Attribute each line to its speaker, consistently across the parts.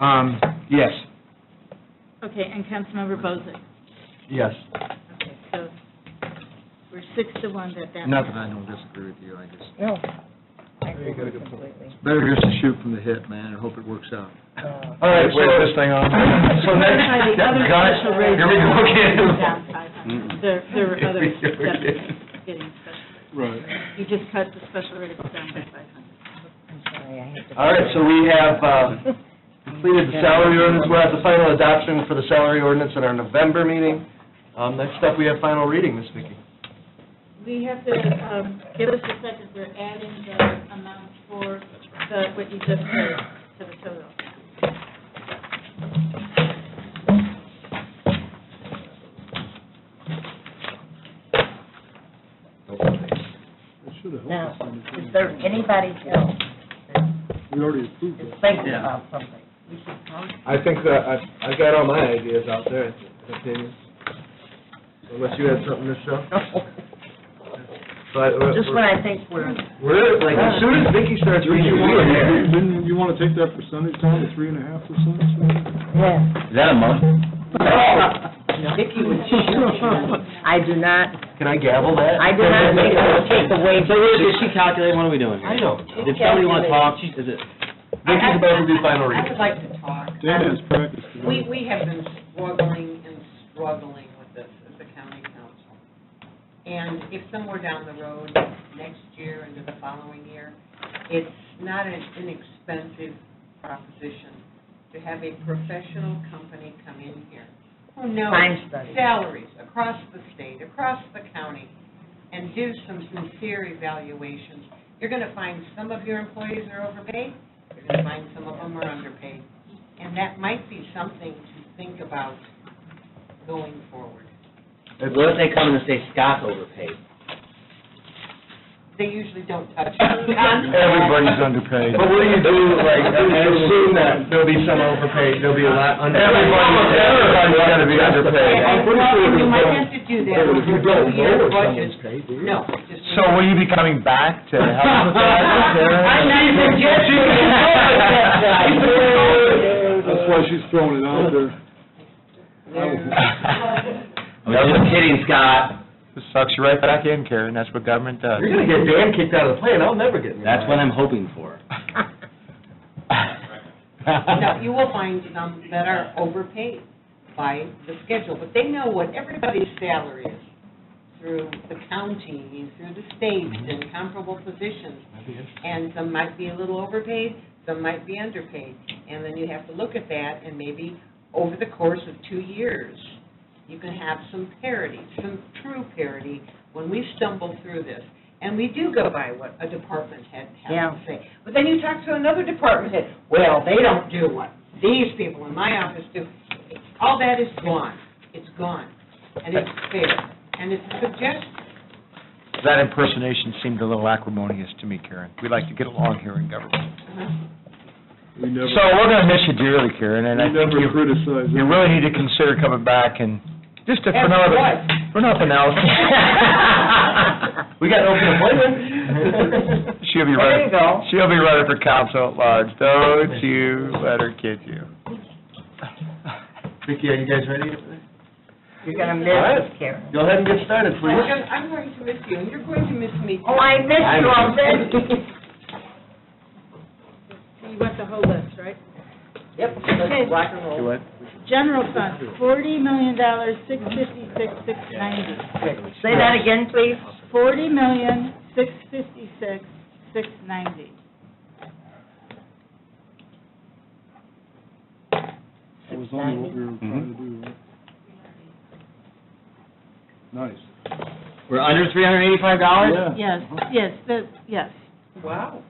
Speaker 1: Um, yes,
Speaker 2: Okay, and Councilmember Bozick.
Speaker 1: yes.
Speaker 2: Okay, so we're six to one that that.
Speaker 3: Not that I don't disagree with you, I just,
Speaker 4: No. I agree with you completely.
Speaker 3: better just to shoot from the hip, man, and hope it works out.
Speaker 4: Uh,
Speaker 1: All right, wait this thing on. So
Speaker 2: By
Speaker 1: next,
Speaker 2: the other
Speaker 1: guys,
Speaker 2: special rates
Speaker 1: here we go again.
Speaker 2: down five. There, there were others
Speaker 1: Here
Speaker 2: that
Speaker 1: we go again.
Speaker 2: getting special.
Speaker 1: Right.
Speaker 2: You just cut the special rate down by five hundred.
Speaker 4: I'm sorry, I have to.
Speaker 1: All right, so we have, uh, completed the salary ordinance, we'll have the final adoption for the salary ordinance at our November meeting. Um, next up, we have final reading, Ms. Vicki.
Speaker 2: We have to, um, give us a second, we're adding the amount for the, what you just said to the total.
Speaker 4: Now, is there anybody else that
Speaker 5: We already approved
Speaker 4: is thinking about something? We should come.
Speaker 5: I think that, I, I got all my ideas out there, opinions. Unless you had something to show. But,
Speaker 4: Just when I think we're,
Speaker 1: We're, like, as soon as Vicki starts reading, we are there.
Speaker 5: Didn't you want to take that percentage down to three and a half percent?
Speaker 4: yeah,
Speaker 6: Is that a month?
Speaker 4: Vicki would I do not,
Speaker 1: Can I gavel that?
Speaker 4: I do not think it will take away.
Speaker 6: So wait, did she calculate, what are we doing here?
Speaker 1: I know.
Speaker 6: Did somebody want to talk, she, is it,
Speaker 1: Vicki's about to do final
Speaker 7: I
Speaker 1: reading.
Speaker 7: would like to talk.
Speaker 5: Dan has practiced.
Speaker 7: We, we have been struggling and struggling with this as a county council. And if somewhere down the road, next year into the following year, it's not an inexpensive proposition to have a professional company come in here who knows
Speaker 4: Time study.
Speaker 7: salaries across the state, across the county, and do some sincere evaluations. You're going to find some of your employees are overpaid, you're going to find some of them are underpaid. And that might be something to think about going forward.
Speaker 6: what if they come in and say Scott's overpaid?
Speaker 7: They usually don't touch.
Speaker 1: Everybody's underpaid. But what do you do, like, I mean, I assume that there'll be some overpaid, there'll be a lot underpaid. Everybody's, everybody's gonna be underpaid.
Speaker 7: And well, you might have to do that over two-year budgets. No. just-
Speaker 1: will you be coming back to help with that?
Speaker 4: I'm not even joking.
Speaker 5: That's why she's throwing it out there.
Speaker 6: I'm just kidding, Scott,
Speaker 8: Sucks you right back in, Karen, that's what government does.
Speaker 1: You're gonna get Dan kicked out of the plane, I'll never get. me
Speaker 6: that's
Speaker 1: back.
Speaker 6: what I'm hoping for.
Speaker 7: No, you will find some that are overpaid by the schedule, but they know what everybody's salary is through the county, through the state, and comparable positions. And some might be a little overpaid, some might be underpaid. And then you have to look at that, and maybe over the course of two years, you can have some parity, some true parity, when we stumble through this. And we do go by what a department head has
Speaker 4: Yeah.
Speaker 7: to say. But then you talk to another department head, well, they don't do what these people in my office do. All that is gone. It's gone. And it's fair. And it's a suggestion.
Speaker 8: That impersonation seemed a little acrimonious to me, Karen. We like to get along here in government.
Speaker 5: We never,
Speaker 8: So we're going to miss you dearly, Karen, and I
Speaker 5: we
Speaker 8: think
Speaker 5: never
Speaker 8: you,
Speaker 5: criticize
Speaker 8: you
Speaker 5: it.
Speaker 8: really need to consider coming back and, just to- for
Speaker 7: As
Speaker 8: another,
Speaker 7: what?
Speaker 8: for nothing else.
Speaker 1: We got an open appointment.
Speaker 8: She'll
Speaker 4: There you
Speaker 8: be running,
Speaker 4: go.
Speaker 8: she'll be running for council at large, don't you let her kid you.
Speaker 1: Vicki, are you guys ready? Go
Speaker 4: You're
Speaker 1: All
Speaker 4: gonna
Speaker 1: right.
Speaker 4: miss this, Karen.
Speaker 1: ahead and get started,
Speaker 7: We're
Speaker 1: please.
Speaker 7: gonna- I'm going to miss you, and you're going to miss me.
Speaker 4: Oh, I missed you already.
Speaker 2: You want the whole list, right?
Speaker 4: Yep,
Speaker 2: Okay.
Speaker 4: let's rock and roll.
Speaker 2: General fund, forty million dollars, six fifty-six, six ninety.
Speaker 4: Say that again, please.
Speaker 2: Forty million, six fifty-six, six ninety.
Speaker 5: That was only what we were trying to do, right? Nice.
Speaker 6: We're under three hundred and eighty-five dollars?
Speaker 2: Yes,
Speaker 1: Uh-huh.
Speaker 2: yes, the, yes.
Speaker 7: Wow.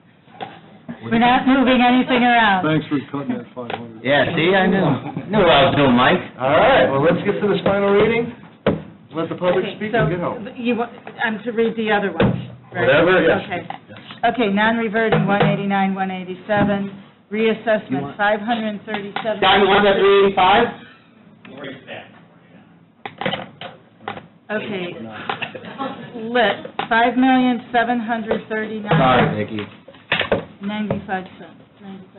Speaker 2: We're not moving anything around.
Speaker 5: Thanks for cutting that five hundred.
Speaker 6: Yeah, see, I knew, knew what I was doing, Mike.
Speaker 1: All right, well, let's get to this final reading. Let the public
Speaker 2: Okay,
Speaker 1: speak
Speaker 2: so
Speaker 1: and get home.
Speaker 2: You, wa- I'm to read the other ones, right?
Speaker 1: Whatever, yes.
Speaker 2: Okay. Okay, non-reverting, one eighty-nine, one eighty-seven, reassessment, five hundred and thirty-seven.
Speaker 6: Scott, you want that three eighty-five?
Speaker 2: Okay. Lit, five million, seven hundred thirty-nine.
Speaker 6: Sorry, Vicki.
Speaker 2: Ninety-five cents, ninety-five